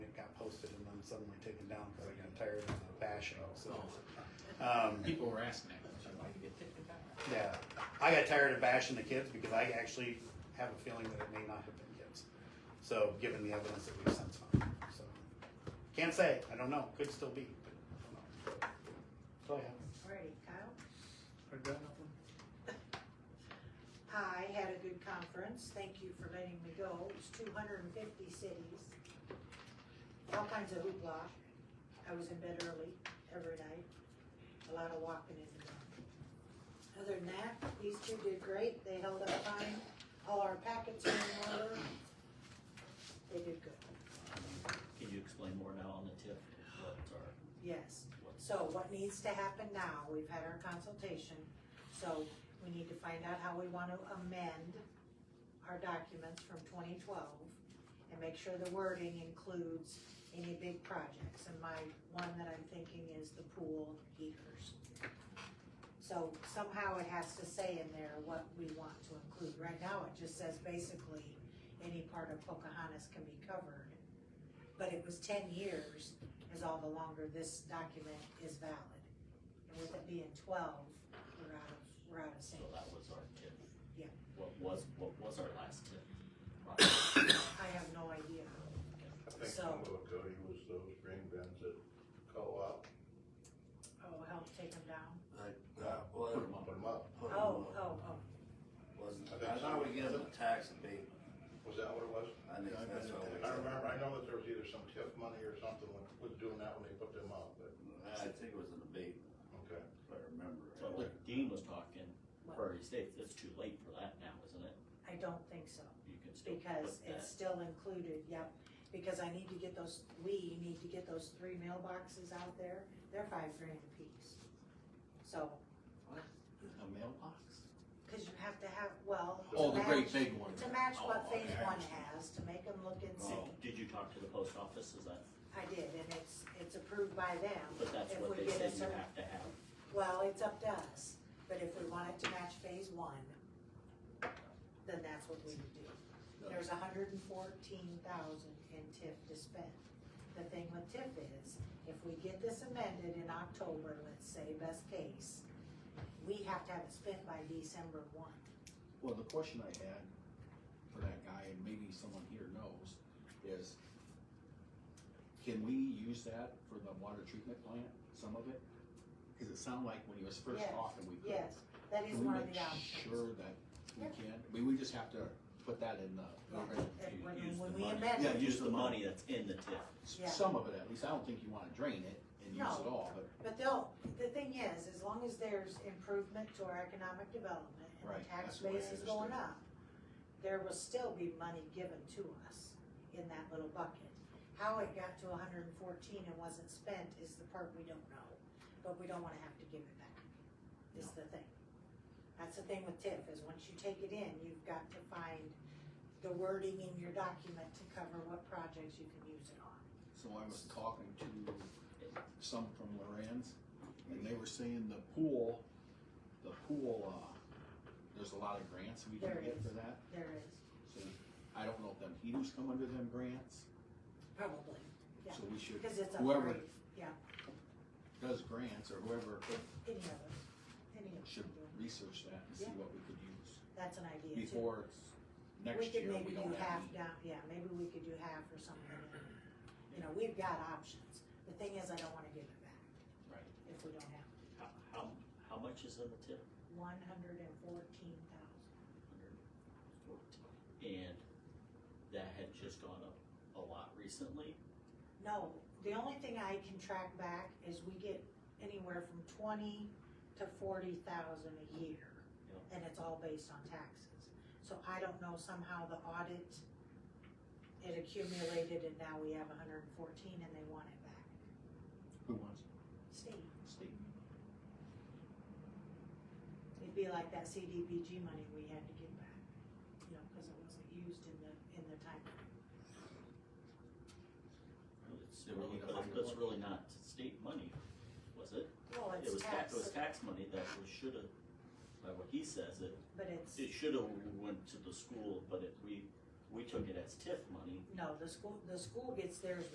taken down because I got tired of the bashing. Oh. So, um, People were asking that. yeah, I got tired of bashing the kids because I actually have a feeling that it may not have been kids. So, given the evidence that we've since found, so can't say. I don't know. Could still be. But I don't know. So yeah. Alrighty, Kyle? I got nothing. I had a good conference, thank you for letting me go, it was two hundred and fifty cities. All kinds of hoopla, I was in bed early, every night, a lot of walking in the dark. Other than that, these two did great, they held up fine, all our packets are in order. They did good, Can you explain more now on the TIF, what are, yes. what's? So what needs to happen now, we've had our consultation, so we need to find out how we want to amend our documents from twenty twelve and make sure the wording includes any big projects. And my, one that I'm thinking is the pool heaters. So somehow it has to say in there what we want to include. Right now, it just says basically, any part of Pocahontas can be covered. But it was ten years is all the longer this document is valid. And with it being twelve, we're out of, we're out of So sync. that was our TIF. Yeah. What was, what was our last TIF? project? I have no idea. I think So- some of it, Cody, was those green bins at co-op. Oh, help take them down? That was, Put 'em up. Put 'em up. put 'em Oh, up. oh, oh. Wasn't, I thought we gave them a tax abatement, Was that what it was? I think that's what we. I remember, I know that there was either some TIF money or something when, was doing that when they put them up, but, I think it was an abatement, okay. if I remember. So right. what Dean was talking, What? Prairie States, it's too late for that now, isn't it? I don't think so, You can still because put it's that. still included, yep. Because I need to get those, we need to get those three mailboxes out there, they're five grand apiece. So, A mailbox? Oh, cause you have to have, well, Oh, to the match, big one. to match what Oh, phase okay. one has, to make them look and see. Oh. Did you talk to the post office, is that, I did, and it's, it's approved by them. but that's If what we they get said a you certain- have to have? Well, it's up to us, but if we want it to match phase one, then that's what we would do. There's hundred and fourteen thousand in TIF to spend. The thing with TIF is, if we get this amended in October, let's say best case, we have to have it spent by December one. Well, the question I had for that guy, and maybe someone here knows, is can we use that for the water treatment plant, some of it? Cause it sounded like when he was first Yes, talking, we could. Yes, that is Can we one of make the options. Sure that we Yeah. can, I mean, we just have to put that in the, program. And You use when, the when we money. amend Yeah, it, Use the money that's in the TIF. Yeah. some of it at least, I don't think you wanna drain it and use it all, No. but But they'll, the thing is, as long as there's improvement to our economic development and the Right, that's tax the way I base is going understood up, there will still be money given to us in that little bucket. How it got to hundred and fourteen and wasn't spent is the part we don't know, but we don't wanna have to give it back, is the thing. That's the thing with TIF, is once you take it in, you've got to find the wording in your document to cover what projects you can use it on. So I was talking to some from Lorenz, and they were saying the pool, the pool, uh, there's a lot of grants we can There get is. for that. There is, So I don't know if them heaters come under them grants, probably, Yeah. so we should, because it's a whoever great- yeah. does grants or whoever Any of us, any of us. should can do it. research that and Yeah. see what we could use That's an idea too. before it's We next could year, maybe we do don't have. half any. down, yeah, maybe we could do half or something. You know, we've got options. The thing is, I don't wanna give it back. Right. If we don't have it. How, how, how much is in the TIF? One hundred and fourteen thousand. And that had just gone up a lot recently. No, the only thing I can track back is we get anywhere from twenty to forty thousand a year. Yeah. And it's all based on taxes. So I don't know somehow the audit, it accumulated and now we have hundred and fourteen and they want it back. Who wants State, to stay? it'd be like that CDBG money we had to give back, you know, cause it wasn't used in the, in the time. It's Yeah, we really, need to but find it's one. really not state money, was it? Well, It it's was tax, it was tax tax, money that was should've, by what he says, it, but it's, it should've went to the school, but it, we, we took it as TIF money. no, the school, the school gets theirs